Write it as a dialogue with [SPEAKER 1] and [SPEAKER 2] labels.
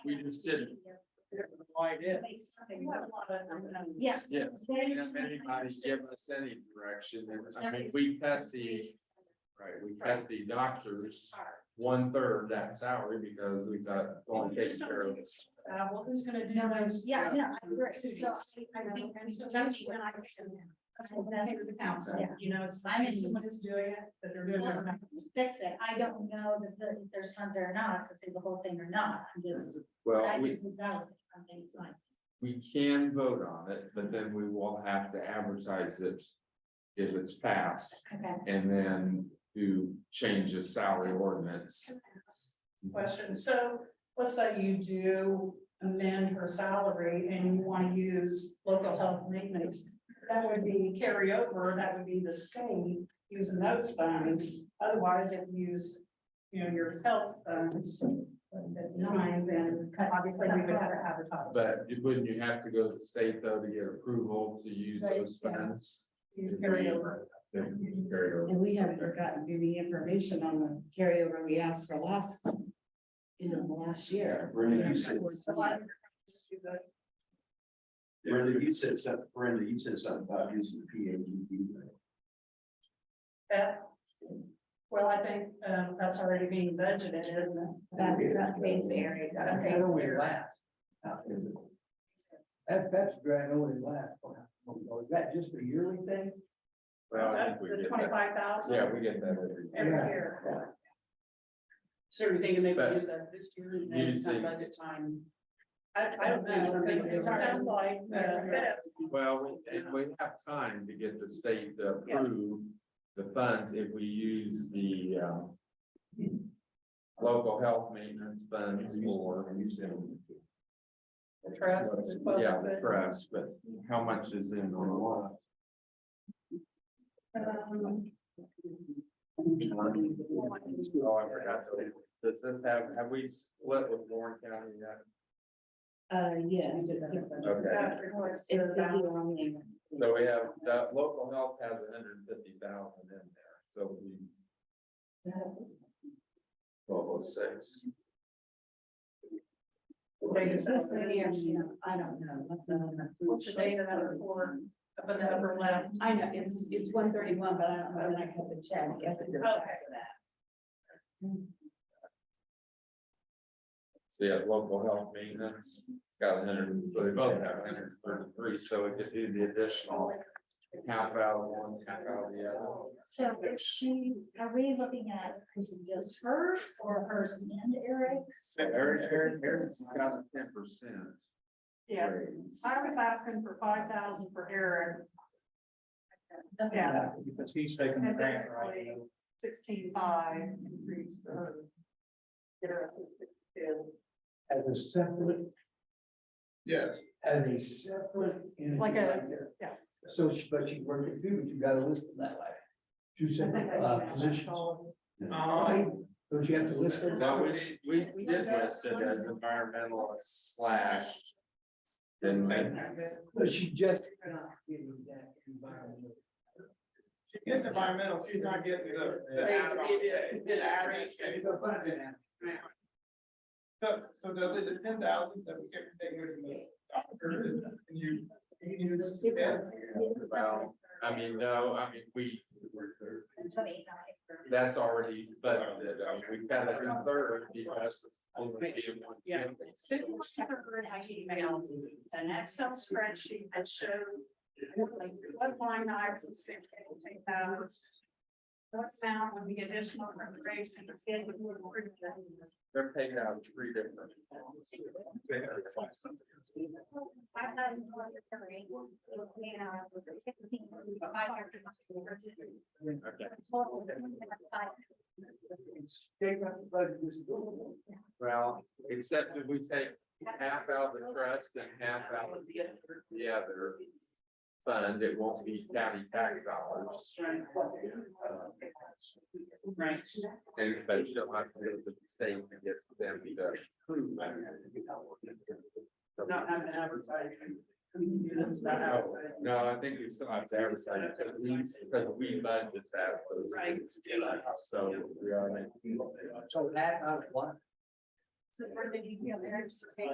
[SPEAKER 1] We just didn't. Why did?
[SPEAKER 2] Yeah.
[SPEAKER 1] Yeah. If anybody's given us any direction, and I mean, we cut the, right, we cut the doctors one third that salary because we thought, well, we take care of this.
[SPEAKER 3] Uh, well, who's gonna do those?
[SPEAKER 2] Yeah,
[SPEAKER 3] uh,
[SPEAKER 2] yeah, I agree. So I
[SPEAKER 3] I
[SPEAKER 2] think
[SPEAKER 3] think,
[SPEAKER 2] I'm
[SPEAKER 3] and
[SPEAKER 2] so
[SPEAKER 3] so
[SPEAKER 2] touchy
[SPEAKER 3] that's
[SPEAKER 2] when
[SPEAKER 3] what
[SPEAKER 2] I
[SPEAKER 3] I
[SPEAKER 2] was in there.
[SPEAKER 3] That's what that is the council,
[SPEAKER 2] Yeah.
[SPEAKER 3] you know, it's finding someone who's doing it, that they're doing it. right.
[SPEAKER 2] Fix it. I don't know that the- if there's funds there or not, to say the whole thing or not. I'm just. I
[SPEAKER 1] Well, we,
[SPEAKER 2] didn't validate some things like.
[SPEAKER 1] we can vote on it, but then we will have to advertise it if it's passed,
[SPEAKER 2] Okay.
[SPEAKER 1] and then do change the salary ordinance.
[SPEAKER 3] Question, so let's say you do amend her salary and you wanna use local health maintenance. That would be carryover, that would be the state using those funds, otherwise if you use, you know, your health funds. At nine, then obviously we would have to advertise.
[SPEAKER 1] But you- wouldn't you have to go to the state though to get approval to use
[SPEAKER 3] Right,
[SPEAKER 1] those
[SPEAKER 3] yeah.
[SPEAKER 1] funds?
[SPEAKER 3] Use carryover.
[SPEAKER 1] Then you can carry over.
[SPEAKER 4] And we haven't gotten any information on the carryover we asked for last, you know, last year.
[SPEAKER 5] Brenda, you said,
[SPEAKER 3] A lot of- Just do the
[SPEAKER 5] Brenda, you said something, Brenda, you said something about using the P A G D.
[SPEAKER 3] That, well, I think, um, that's already being budgeted, isn't it?
[SPEAKER 4] That-
[SPEAKER 5] that
[SPEAKER 3] means area.
[SPEAKER 5] That, that's gradually last. Is that just a yearly thing?
[SPEAKER 1] Well, I think we
[SPEAKER 3] The
[SPEAKER 1] get that.
[SPEAKER 3] twenty-five thousand
[SPEAKER 1] Yeah, we get that every
[SPEAKER 3] every
[SPEAKER 1] year.
[SPEAKER 3] year.
[SPEAKER 6] So you're thinking maybe
[SPEAKER 1] But-
[SPEAKER 6] use that this year and
[SPEAKER 1] You
[SPEAKER 6] then it's not
[SPEAKER 1] see-
[SPEAKER 6] budget time.
[SPEAKER 3] I, I don't know, because it sounds like, uh, this.
[SPEAKER 1] Well, we- and we have time to get the state to
[SPEAKER 6] Yeah.
[SPEAKER 1] approve the funds if we use the, um, local health maintenance funds or,
[SPEAKER 5] And you said.
[SPEAKER 3] the trust. is twelve
[SPEAKER 1] yeah, the
[SPEAKER 3] foot.
[SPEAKER 1] press, but how much is in on the line?
[SPEAKER 3] Um,
[SPEAKER 1] Oh, I forgot. to- Does this have, have we split with Warren County yet?
[SPEAKER 4] Uh, yes.
[SPEAKER 1] Okay.
[SPEAKER 3] that reports to
[SPEAKER 4] It's
[SPEAKER 3] the
[SPEAKER 4] the
[SPEAKER 3] balance.
[SPEAKER 4] only.
[SPEAKER 1] So we have, that local health has hundred and fifty thousand in there, so we, twelve oh six.
[SPEAKER 3] They just
[SPEAKER 4] This
[SPEAKER 3] asked
[SPEAKER 4] lady,
[SPEAKER 3] me,
[SPEAKER 4] actually, I don't know. what the-
[SPEAKER 3] what's the date of that report up in the upper left?
[SPEAKER 4] I know, it's, it's one thirty-one, but I don't know, when I have to check. if it's
[SPEAKER 3] Okay.
[SPEAKER 1] So yeah, local health maintenance got a hundred, so they both have hundred and thirty-three, so we could do the additional half out of one, half out of the other.
[SPEAKER 2] So is she, are we looking at, is it just hers or hers and Eric's?
[SPEAKER 1] Eric, Eric, Eric's got a ten percent
[SPEAKER 3] Yeah,
[SPEAKER 1] raise.
[SPEAKER 3] I was asking for five thousand for Eric,
[SPEAKER 2] Okay.
[SPEAKER 3] yeah,
[SPEAKER 5] Because he's taking
[SPEAKER 3] the grant, right? sixteen-five increase for her. Get her up to sixty-two.
[SPEAKER 5] As a separate,
[SPEAKER 1] Yes.
[SPEAKER 5] as a separate. entity
[SPEAKER 3] Like a-
[SPEAKER 5] right there.
[SPEAKER 3] yeah.
[SPEAKER 5] So, she- but you work it too, but you gotta list them that way. Two separate uh, positions. Right? Don't you have to list them?
[SPEAKER 1] No, we, we did list it as environmental slash. Didn't we?
[SPEAKER 5] But she just cannot get in that environment.
[SPEAKER 7] She gets environmental, she's not getting the, the add-on. the add-on. So, so the, the ten thousand that was given, they were the doctor, is- and you, you can use.
[SPEAKER 1] Well, I mean, no, I mean, we,
[SPEAKER 2] And so they not her.
[SPEAKER 1] that's already, but, I mean, we kind of third because. only gave one
[SPEAKER 6] Yeah.
[SPEAKER 1] candidate.
[SPEAKER 3] Send me separate email, an Excel spreadsheet that showed like what line items they can take out. What amount would be additional appropriation to get the board approved.
[SPEAKER 1] They're taking out three different.
[SPEAKER 2] I thought it was Eric, you know, with the 16, five hundred dollars.
[SPEAKER 1] Okay.
[SPEAKER 2] Total five
[SPEAKER 1] Well, except if we take half out of the trust and half out of the other fund, it won't be county tax dollars.
[SPEAKER 6] Right.
[SPEAKER 1] And but you don't have to go to the state to get them to approve. that.
[SPEAKER 6] Not having advertising. Not advertising.
[SPEAKER 1] No, I think we still have to advertise, it, at least, because we budget that.
[SPEAKER 6] Right.
[SPEAKER 1] So we are.
[SPEAKER 5] So that, uh, what?
[SPEAKER 3] So where did you feel there?